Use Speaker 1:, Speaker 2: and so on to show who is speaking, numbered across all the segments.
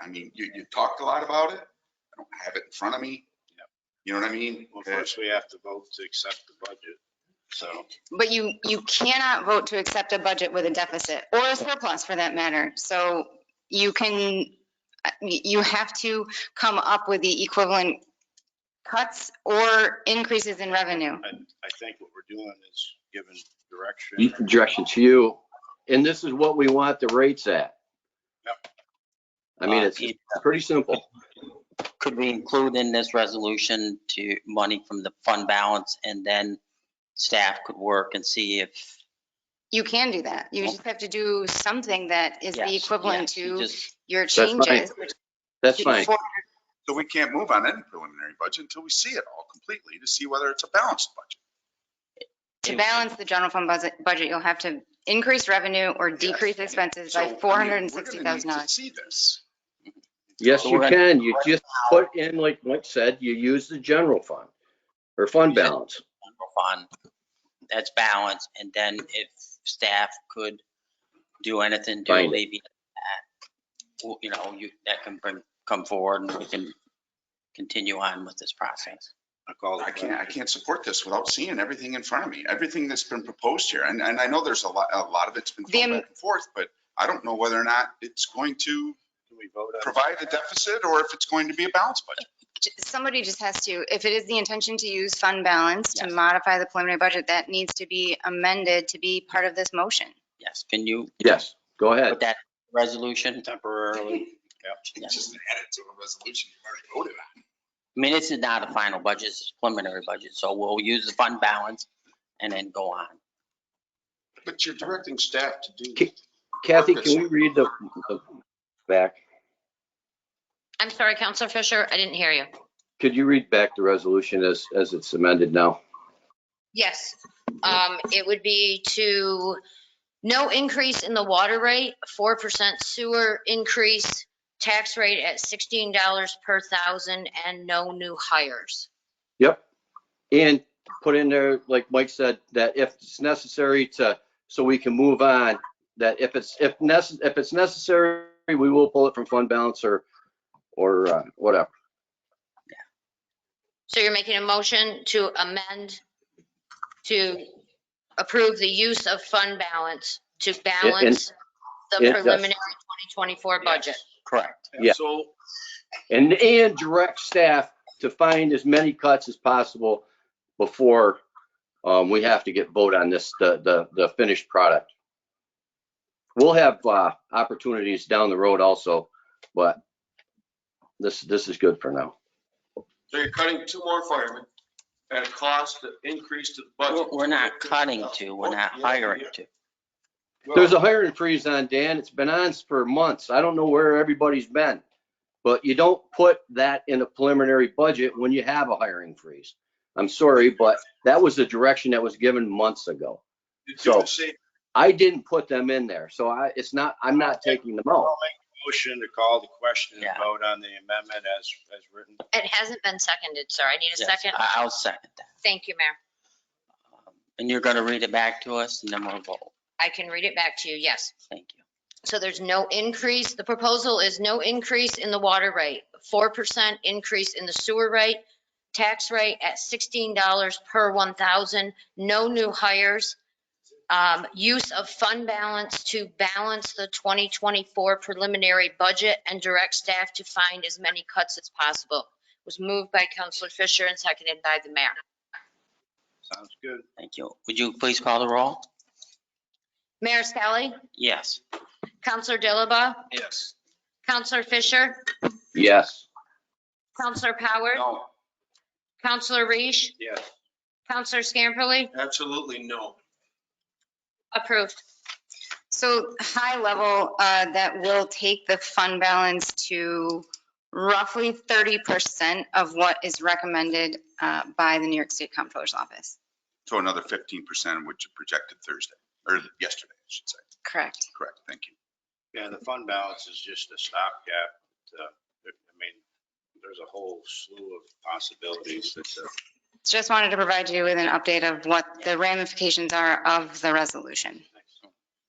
Speaker 1: I mean, you, you talked a lot about it. I don't have it in front of me. You know what I mean?
Speaker 2: Well,
Speaker 1: Uh,
Speaker 2: first we have to vote to accept the budget. So,
Speaker 3: But you, you cannot vote to accept a budget with a deficit or a surplus for that matter. So you can, you have to come up with the equivalent cuts or increases in revenue.
Speaker 2: I think what we're doing is giving
Speaker 4: you-
Speaker 1: Mm,
Speaker 2: direction.
Speaker 4: direction to you. And this is what we want the rates at. I mean, it's
Speaker 5: Uh,
Speaker 4: pretty simple.
Speaker 5: Could we include in this resolution to money from the fund balance and then staff could work and see if.
Speaker 3: You can do that. You just have to do something that is the
Speaker 5: Yes,
Speaker 3: equivalent
Speaker 5: yes, you
Speaker 3: to
Speaker 5: just-
Speaker 3: your
Speaker 4: fine.
Speaker 3: changes. which
Speaker 4: That's
Speaker 3: is
Speaker 4: fine.
Speaker 3: for-
Speaker 1: So we can't move on any preliminary budget until we see it all completely to see whether it's a balanced budget.
Speaker 3: To balance the general fund budget, budget, you'll have to increase revenue or decrease expenses
Speaker 1: So, I
Speaker 3: by
Speaker 1: mean,
Speaker 3: four
Speaker 1: we're
Speaker 3: hundred
Speaker 1: gonna
Speaker 3: and
Speaker 1: need
Speaker 3: sixty
Speaker 1: to
Speaker 3: thousand dollars.
Speaker 1: See this.
Speaker 4: Yes, you
Speaker 5: Correct.
Speaker 4: can. You just put in, like Mike said, you use the general fund or fund balance.
Speaker 5: Fund that's balanced and then if staff could do anything to
Speaker 4: Fine.
Speaker 5: alleviate that, well, you know, you, that can bring, come forward and we can continue on with this process.
Speaker 2: I call it.
Speaker 1: I can't, I can't support this without seeing everything in front of me, everything that's been proposed here. And, and I know there's a lot, a lot of it's been
Speaker 3: The
Speaker 1: thrown
Speaker 3: am-
Speaker 1: back and forth, but I don't know whether or not it's going to
Speaker 2: Can we vote on?
Speaker 1: provide a deficit or if it's going to be a balanced budget.
Speaker 3: j- somebody just has to, if it is the intention to use fund balance to
Speaker 5: Yes.
Speaker 3: modify the preliminary budget, that needs to be amended to be part of this motion.
Speaker 5: Yes, can you
Speaker 4: Yes, go ahead.
Speaker 5: put that resolution?
Speaker 2: Temporarily.
Speaker 5: Yes.
Speaker 1: Just add it to a resolution you already voted on.
Speaker 5: I mean, this is not a final budget, this is preliminary budget, so we'll use the fund balance and then go on.
Speaker 1: But you're directing staff to do.
Speaker 4: Ki- Kathy, can we read the the back?
Speaker 6: I'm sorry, Counselor Fisher, I didn't hear you.
Speaker 4: Could you read back the resolution as, as it's amended now?
Speaker 6: Yes, um, it would be to no increase in the water rate, four percent sewer increase, tax rate at sixteen dollars per thousand, and no new hires.
Speaker 4: Yep. And put in there, like Mike said, that if it's necessary to, so we can move on, that if it's, if necess, if it's necessary, we will pull it from fund balance or, or uh, whatever.
Speaker 6: So you're making a motion to amend, to approve the use of fund balance to balance the
Speaker 4: and- yes.
Speaker 6: preliminary 2024 budget.
Speaker 5: Correct.
Speaker 4: Yeah.
Speaker 2: So
Speaker 4: And, and direct staff to find as many cuts as possible before um, we have to get vote on this, the, the, the finished product. We'll have uh, opportunities down the road also, but this, this is good for now.
Speaker 7: So you're cutting two more firemen at a cost that increased to the
Speaker 5: We're
Speaker 7: budget.
Speaker 5: we're not cutting to, we're not hiring to.
Speaker 4: There's a hiring freeze on, Dan. It's been on for months. I don't know where everybody's been. But you don't put that in a preliminary budget when you have a hiring freeze. I'm sorry, but that was the direction that was given months ago.
Speaker 7: You do
Speaker 4: so-
Speaker 7: the same-
Speaker 4: I didn't put them in there, so I, it's not, I'm not taking them out.
Speaker 2: I'll make a motion to call the question and
Speaker 5: Yeah.
Speaker 2: vote on the amendment as, as written.
Speaker 6: It hasn't been seconded, sir. I need a
Speaker 5: Yes,
Speaker 6: second.
Speaker 5: I- I'll second that.
Speaker 6: Thank you, Mayor.
Speaker 5: And you're going to read it back to us and then we'll vote.
Speaker 6: I can read it back to you, yes.
Speaker 5: Thank you.
Speaker 6: So there's no increase, the proposal is no increase in the water rate, 4% increase in the sewer rate, tax rate at $16 per 1,000, no new hires, um, use of fund balance to balance the 2024 preliminary budget and direct staff to find as many cuts as possible. Was moved by Counselor Fisher and seconded by the mayor.
Speaker 2: Sounds good.
Speaker 5: Thank you. Would you please call the roll?
Speaker 6: Mayor Skelly,
Speaker 5: Yes.
Speaker 6: Counselor Dilaba,
Speaker 7: Yes.
Speaker 6: Counselor Fisher,
Speaker 4: Yes,
Speaker 6: Counselor Howard.
Speaker 7: No,
Speaker 6: Counselor Reish,
Speaker 2: Yes.
Speaker 6: Counselor Scamperly,
Speaker 7: absolutely no.
Speaker 6: approved.
Speaker 3: So high level, uh, that will take the fund balance to roughly thirty percent of what is recommended, uh, by the New York State Comptroller's Office.
Speaker 1: So another fifteen percent, which you projected Thursday, or yesterday, I should say.
Speaker 3: Correct.
Speaker 1: Correct, thank you.
Speaker 2: Yeah, the fund balance is just a stopgap. uh, I mean, there's a whole slew of possibilities that uh, the
Speaker 3: Just wanted to provide you with an update of what the ramifications are of the resolution.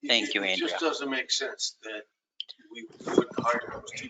Speaker 7: It-
Speaker 5: Thank you,
Speaker 7: It
Speaker 5: Andrea.
Speaker 7: just doesn't make sense that we wouldn't hire those two